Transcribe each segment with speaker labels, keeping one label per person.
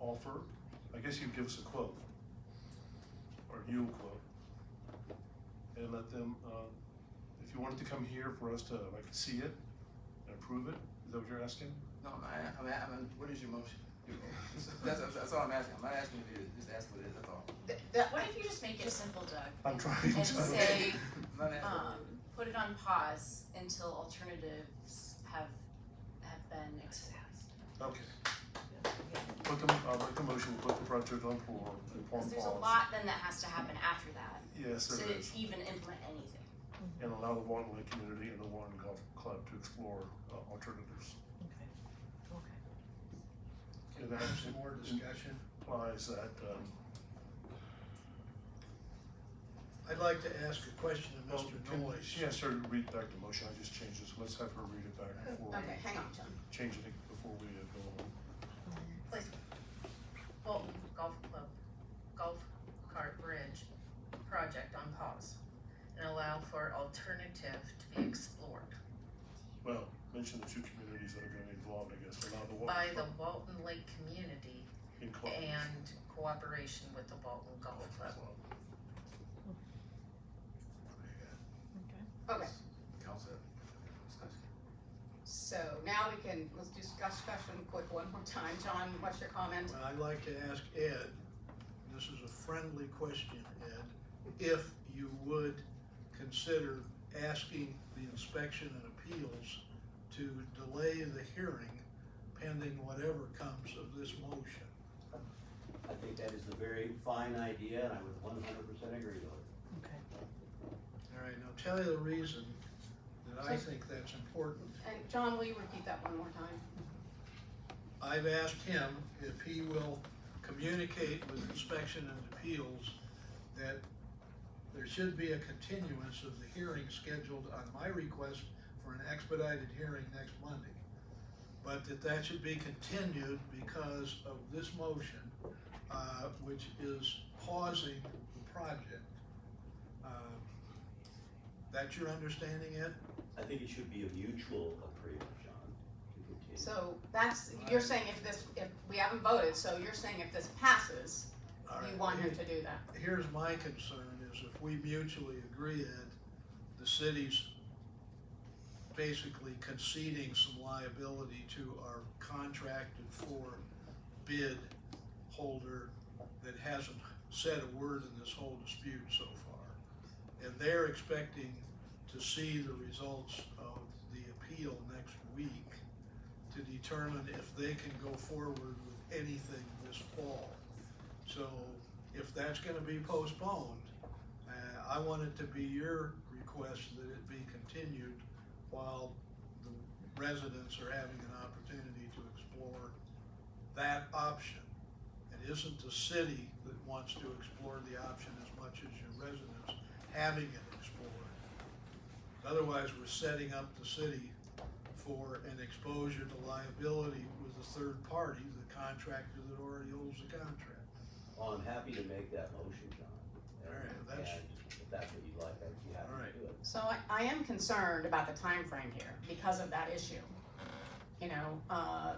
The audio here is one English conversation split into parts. Speaker 1: offer, I guess you give us a quote. Or you a quote. And let them, uh, if you wanted to come here for us to, like, see it and approve it, is that what you're asking?
Speaker 2: No, I, I'm, I'm, what is your motion? That's, that's- that's all I'm asking, I'm not asking you to, just ask what it is, that's all.
Speaker 3: Th- That,
Speaker 4: What if you just make it simple, Doug?
Speaker 1: I'm trying to.
Speaker 4: And say,
Speaker 2: I'm not asking
Speaker 4: um,
Speaker 5: Uh.
Speaker 2: what it is.
Speaker 4: put it on pause until alternatives have, have been exposed.
Speaker 1: Okay. Put the, I'll make the motion, we'll put the project on for, for
Speaker 4: Cause
Speaker 1: pause.
Speaker 4: there's a lot then that has to happen after that,
Speaker 1: Yes,
Speaker 4: to
Speaker 1: there is,
Speaker 4: even implement anything.
Speaker 1: and allow the Warren Lake community and the Warren Golf Club to explore uh, alternatives.
Speaker 3: okay, okay.
Speaker 1: And that
Speaker 5: There's some more discussion.
Speaker 1: implies that, um,
Speaker 5: I'd like to ask a question of
Speaker 1: well,
Speaker 5: Mr.
Speaker 1: can-
Speaker 5: Noyes.
Speaker 1: she has her to read back the motion, I just changed this, let's have her read it back before we,
Speaker 3: Okay, hang on, John.
Speaker 1: change it before we uh, go on.
Speaker 6: Fulton Golf Club Golf Cart Bridge project on pause and allow for alternative to be explored
Speaker 1: Well, mention the two communities that are gonna be involved, I guess, allow the
Speaker 6: by
Speaker 1: Warren
Speaker 6: the
Speaker 1: Club
Speaker 6: Walton Lake community
Speaker 1: in cooperation.
Speaker 6: and cooperation with the Walton Golf Club.
Speaker 3: Okay,
Speaker 2: Council, discussion.
Speaker 3: so now we can, let's do discussion quick one more time. John, what's your comment?
Speaker 5: Well, I'd like to ask Ed, this is a friendly question, Ed, if you would consider asking the inspection and appeals to delay the hearing pending whatever comes of this motion.
Speaker 7: I think that is a very fine idea, and I would one hundred percent agree with it.
Speaker 3: Okay.
Speaker 5: All right, now tell you the reason that I think that's important.
Speaker 3: And John, will you repeat that one more time?
Speaker 5: I've asked him if he will communicate with inspection and appeals that there should be a continuance of the hearing scheduled on my request for an expedited hearing next Monday. But that that should be continued because of this motion, uh, which is pausing the project. Uh, That's your understanding, Ed?
Speaker 7: I think it should be a mutual agreement, John, to continue.
Speaker 3: So that's, you're saying if this, if, we haven't voted, so you're saying if this passes,
Speaker 5: All right.
Speaker 3: you want him to do that?
Speaker 5: Here's my concern is if we mutually agree that the city's basically conceding some liability to our contracted for bid holder that hasn't said a word in this whole dispute so far. And they're expecting to see the results of the appeal next week to determine if they can go forward with anything this fall. So if that's gonna be postponed, uh, I want it to be your request that it be continued while the residents are having an opportunity to explore that option. It isn't the city that wants to explore the option as much as your residents having it explored. Otherwise, we're setting up the city for an exposure to liability with a third party, the contractor that already owns the contract.
Speaker 7: Well, Oh, I'm happy to make that motion, John.
Speaker 5: All right,
Speaker 7: And-
Speaker 5: that's-
Speaker 7: and If that's what you'd like, I'd be
Speaker 5: All
Speaker 7: happy
Speaker 5: right.
Speaker 7: to do it.
Speaker 3: So I, I am concerned about the time frame here because of that issue. You know, uh,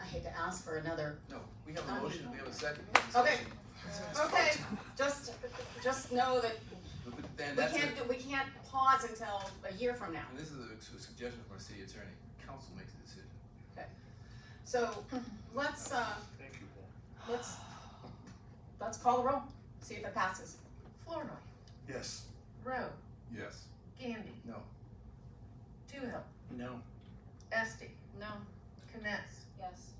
Speaker 3: I hate to ask for another,
Speaker 2: No, we have a motion, we have a second.
Speaker 3: Okay.
Speaker 2: Discussion.
Speaker 3: okay, just, just know that
Speaker 2: Then
Speaker 3: we
Speaker 2: that's,
Speaker 3: can't,
Speaker 2: a-
Speaker 3: do- we can't pause until a year from now.
Speaker 2: and this is a su- suggestion from our city attorney, council makes the decision.
Speaker 3: So let's, uh,
Speaker 1: Thank you, Paul.
Speaker 3: let's, let's call the roll, see if it passes.
Speaker 6: Flournoy,
Speaker 1: Yes.
Speaker 6: Rowe,
Speaker 2: Yes.
Speaker 6: Gandy.
Speaker 2: No.
Speaker 6: Toohill,
Speaker 2: No.
Speaker 6: Esti,
Speaker 4: No,
Speaker 6: Kness,
Speaker 4: yes.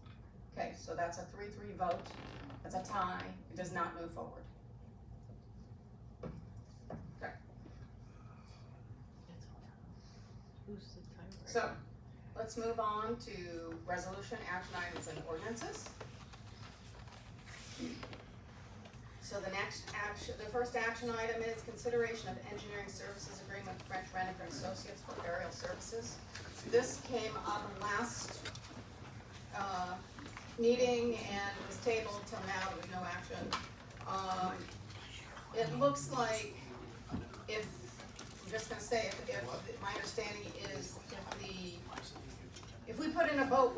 Speaker 3: Okay, so that's a three-three vote, that's a tie, it does not move forward.
Speaker 8: Who's the timer?
Speaker 3: So, let's move on to resolution, action items, and ordinances. So the next action, the first action item is consideration of engineering services agreement with French Rennick and Associates for burial services. This came up last, uh, meeting and was tabled till now, there was no action. Um, it looks like if, I'm just gonna say, if, if, my understanding is if the, if we put in a vote